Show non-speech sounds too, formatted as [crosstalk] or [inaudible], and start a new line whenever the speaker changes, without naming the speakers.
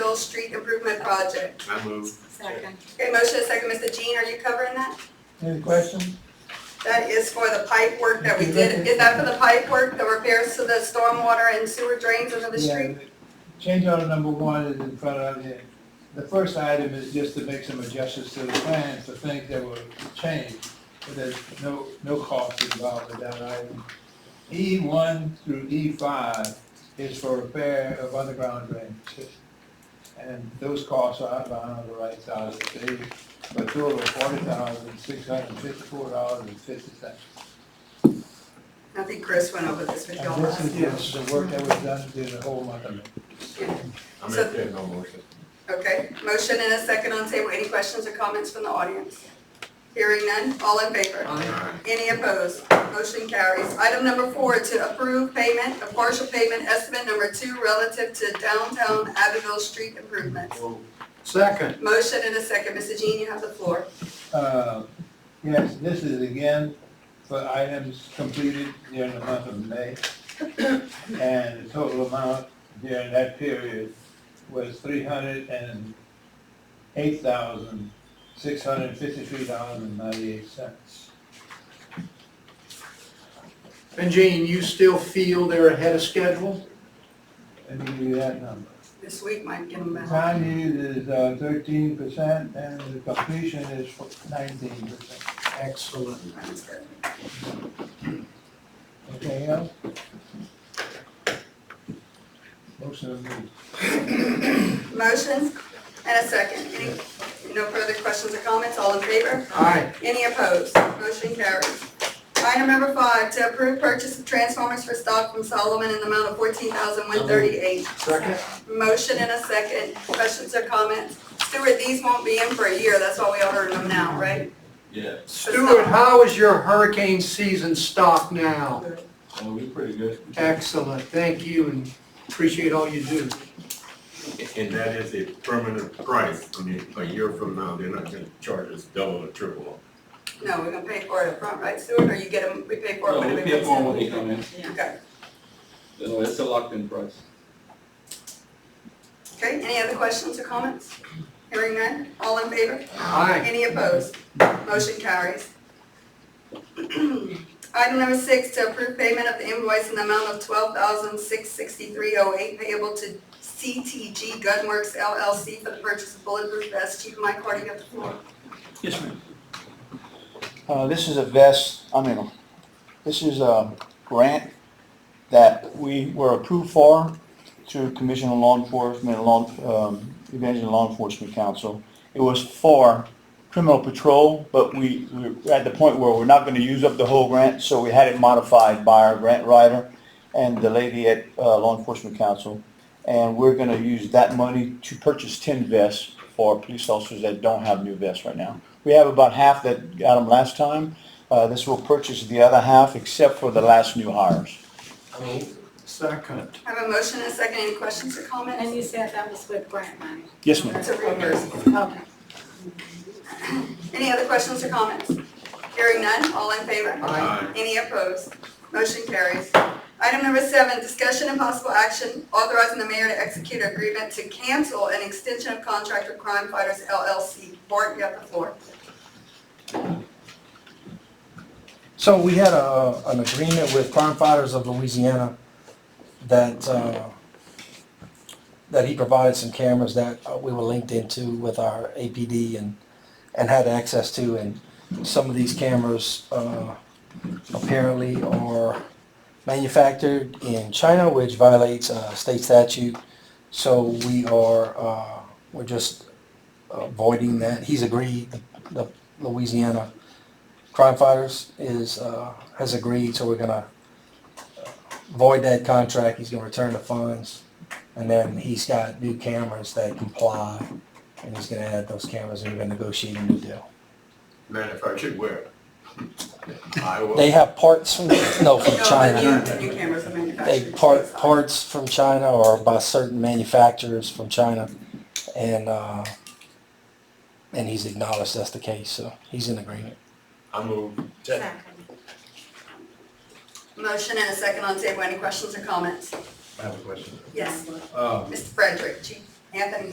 Middle Street Improvement Project.
I move.
Second.
Okay, motion and second, Mr. Jean, are you covering that?
Any questions?
That is for the pipe work that we did. Is that for the pipe work, the repairs to the stormwater and sewer drains under the street?
Change order number one is in front of you. The first item is just to make some adjustments to the plan for things that were changed, but there's no, no cost involved with that item. E one through E five is for repair of underground drainage. And those costs are outlined on the right side of the page, but total of forty thousand, six hundred and fifty-four dollars and fifty cents.
I think Chris went over this with y'all
And this
last.
is just the work that was done during the whole month of May.
I make that no motion.
Okay, motion and a second on table. Any questions or comments from the audience? Hearing none, all in favor? Any opposed? Motion carries. Item number four, to approve payment of partial payment estimate number two relative to downtown Abbeville street improvements.
Second.
Motion and a second. Mr. Jean, you have the floor.
Uh, Yes, this is again for items completed during the month of May. And the total amount during that period was three hundred and eight thousand, six hundred and fifty-three dollars and ninety-eight cents.
And Jane, you still feel they're ahead of schedule?
Let me give you that number.
This week might give them
The
back.
Time used is uh, thirteen percent and the completion is nineteen percent.
Excellent.
Sounds good.
Anything else? Motion approved.
Motion and a second. Any, no further questions or comments? All in favor?
Aye.
Any opposed? Motion carries. Item number five, to approve purchase of transformers for stock from Solomon in the amount of fourteen thousand one thirty-eight.
Second.
Motion and a second. Questions or comments? Stuart, these won't be in for a year. That's why we ordered them now, right?
Yeah,
Stuart, how is your hurricane season stocked now?
oh, we pretty good.
Excellent. Thank you and appreciate all you do.
And that is a permanent price, I mean, a year from now, they're not gonna charge us double or triple.
No, we're gonna pay for it up front, right, Stuart? Or you get them, we pay for it
No,
when
we
it
pay
comes
for them when
in?
they come in,
Okay.
no, it's a locked-in price.
Okay, any other questions or comments? Hearing none, all in favor?
Aye.
Any opposed? Motion carries. [clears throat] Item number six, to approve payment of the invoice in the amount of twelve thousand six sixty-three oh eight payable to CTG Gunworks LLC for the purchase of bulletproof vests. Chief Mike Hardy, you have the floor.
Yes, ma'am.
Uh, this is a vest, I mean, this is a grant that we were approved for through Commission on Law Enforcement, Law, um, Evangeline Law Enforcement Council. It was for criminal patrol, but we, we we're at the point where we're not gonna use up the whole grant, so we had it modified by our grant writer and the lady at, uh, Law Enforcement Council. And we're gonna use that money to purchase ten vests for police officers that don't have new vests right now. We have about half that got them last time. Uh, this will purchase the other half except for the last new hires.
Second.
I have a motion and a second. Any questions or
And
comments?
you said that was with grant money?
Yes, ma'am.
It's a reimbursement.
Okay.
Any other questions or comments? Hearing none, all in favor?
Aye.
Any opposed? Motion carries. Item number seven, discussion and possible action authorizing the mayor to execute an agreement to cancel an extension of contract with Crime Fighters LLC. Bart, you have the floor.
So we had a, an agreement with Crime Fighters of Louisiana that, uh, that he provided some cameras that uh, we were linked into with our APD and, and had access to, and some of these cameras, uh, apparently are manufactured in China, which violates, uh, state statute. So we are, uh, we're just avoiding that. He's agreed, the Louisiana crime fighters is, uh, has agreed, so we're gonna void that contract, he's gonna return the funds, and then he's got new cameras that comply, and he's gonna add those cameras, and we're gonna negotiate a new deal.
Manufactured where? Iowa.
They have parts from, no, from China,
No, the new, the new cameras are manufactured.
they part, parts from China or by certain manufacturers from China, and, uh, and he's acknowledged that's the case, so he's in agreement.
I move.
Motion and a second on table. Any questions or comments?
I have a question.
Yes,
Um,
Mr. Frederick, Chief Anthony